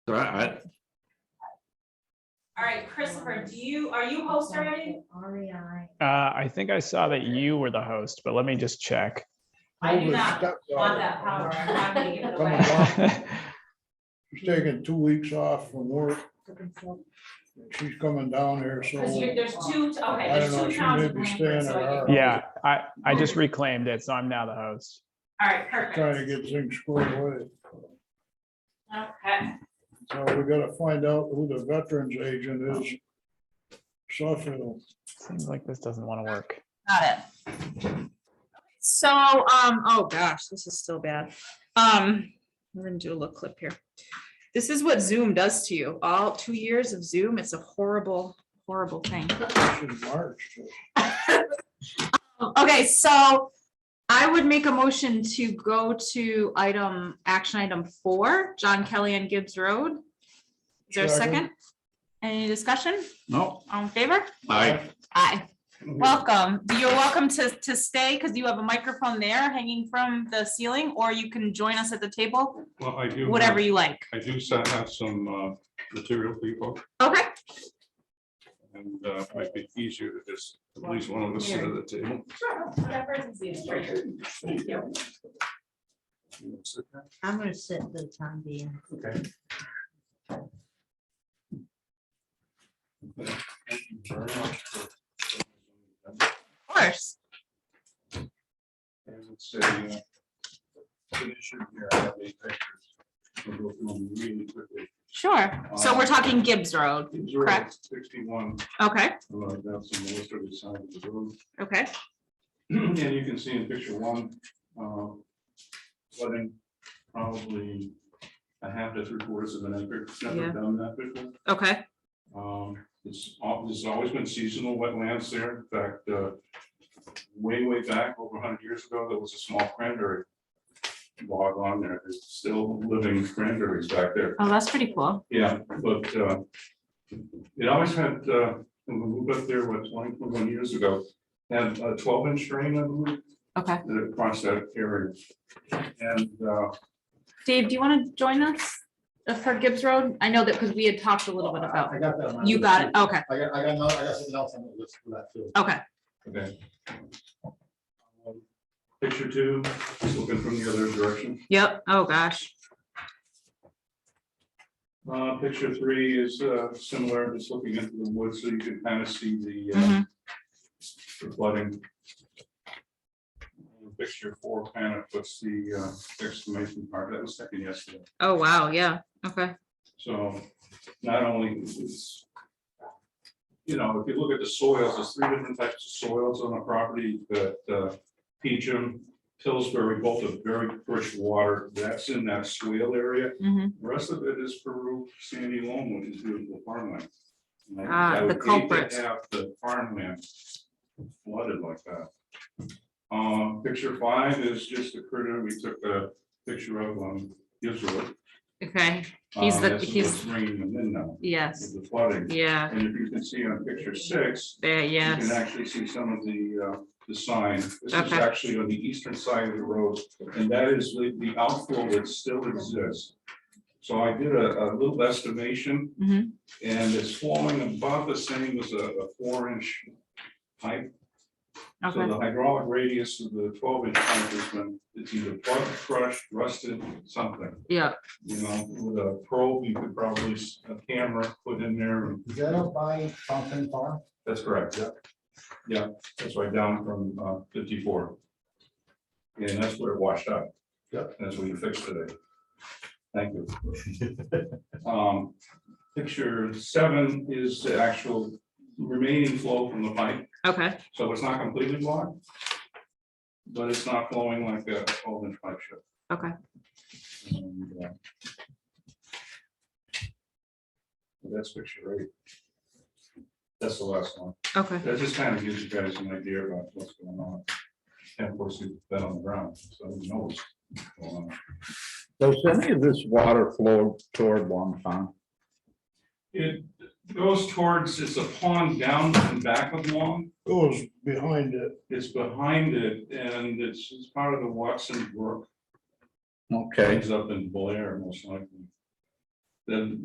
All right, All right, Christopher, do you, are you host already? REI. Uh, I think I saw that you were the host, but let me just check. I do Holy not stepdaughter. want that power. I'm not gonna give it Come away. along. She's taking two weeks off from work. the consult- She's coming down here, so Cause you, there's two, okay, I there's don't know, two she towns may in be Blanford, staying so at I our- think. Yeah, I, I just reclaimed it, so I'm now the host. All right, trying to perfect. get things squared away. Okay, So we gotta find out who the veterans agent is. Suffield. Seems like this doesn't want to work. Got it. So, um, oh gosh, this is still bad. Um, we're gonna do a little clip here. This is what Zoom does to you. All two years of Zoom, it's a horrible, horrible thing. this is March. Okay, so I would make a motion to go to item, action item four, John Kelly and Gibbs Road. Is there a second? Any discussion? no, All in favor? I, Aye. Welcome. You're welcome to, to stay because you have a microphone there hanging from the ceiling, or you can join us at the table, Well, I do. whatever have- you like. I do sa- have some uh, material people, Okay, and uh, it might be easier to just, at least one of us sit at the table. sure, whatever is easiest for you. Thank you. I'm gonna sit for the time being. Okay. of course. And it's a, uh, an issue here, I have eight pictures. We'll go through them really quickly. Sure. So we're talking Gibbs Road. These are Correct. Sixty-one, Okay, uh, that's the most of the side of the room. okay. And you can see in picture one, uh, flooding probably a half to three quarters of an acre, It's Yeah. never done that before. Okay, Um, it's, al- there's always been seasonal wetlands there. In fact, uh, way, way back, over hundred years ago, there was a small cranberry bog on there. There's still living cranberries back there. oh, that's pretty cool. Yeah, but, uh, it always had, uh, when we moved up there, what, 20, 21 years ago, had a twelve inch drain, I believe, Okay. that across that area. And, uh, Dave, do you want to join us uh, for Gibbs Road? I know that because we had talked a little bit about, I got that. on my you list, got too. it. Okay, I got, I got, another- I got something else on the list for that too. okay. Okay. Um, Picture two, just looking from the other direction. Yep. Oh, gosh. Uh, picture three is, uh, similar, just looking into the woods, so you can kind of see the, uh, Mhm. the flooding. Picture four kind of puts the, uh, exclamation mark, that was taken yesterday, Oh, wow. Yeah. Okay. so not only is. You know, if you look at the soils, there's three different types of soils on the property, that, uh, Peachum, Pillsbury, both are very rich water, that's in that swale area. Mhm. The Rest of it is Peru, sandy loam, which is beautiful farmland. And I- Ah, I the would hate to culprit. Have the farmland flooded like that. Um, picture five is just a critter we took a picture of on Israel. Okay. He's Um, the- this is he's- what's Bringing them in now, Yes. with the flooding. Yeah. And if you can see on picture six, There, you can yes. actually see some of the, uh, the sign. This is Okay. actually on the eastern side of the road, and that is the, the outflow that still exists. So I did a, a little estimation, Mhm. and it's flowing about the same as a, a four inch pipe. So Okay. the hydraulic radius of the twelve inch pipe has been, it's either plugged, crushed, rusted, something, Yeah. you know, with a probe, you could probably, s- a camera put in there, and Is that up by Fountain Farm? that's correct, yeah. Yeah, that's right down from uh, fifty-four. And that's where it washed out. Yeah. That's what you fixed today. Thank you. Um, Picture seven is the actual remaining flow from the pipe, Okay. so it's not completely blocked. But it's not flowing like a twelve inch pipe should. Okay. And, uh, That's picture eight. That's the last one. Okay. That just kind of gives you guys an idea about what's going on. And of course, we've been on the ground, so who knows? what's going on. Does any of this water flow toward Long Pond? It goes towards, it's a pond down and back of Long. Goes behind it. It's behind it and it's, it's part of the Watson Brook. Okay. Ends up in Blair most likely. then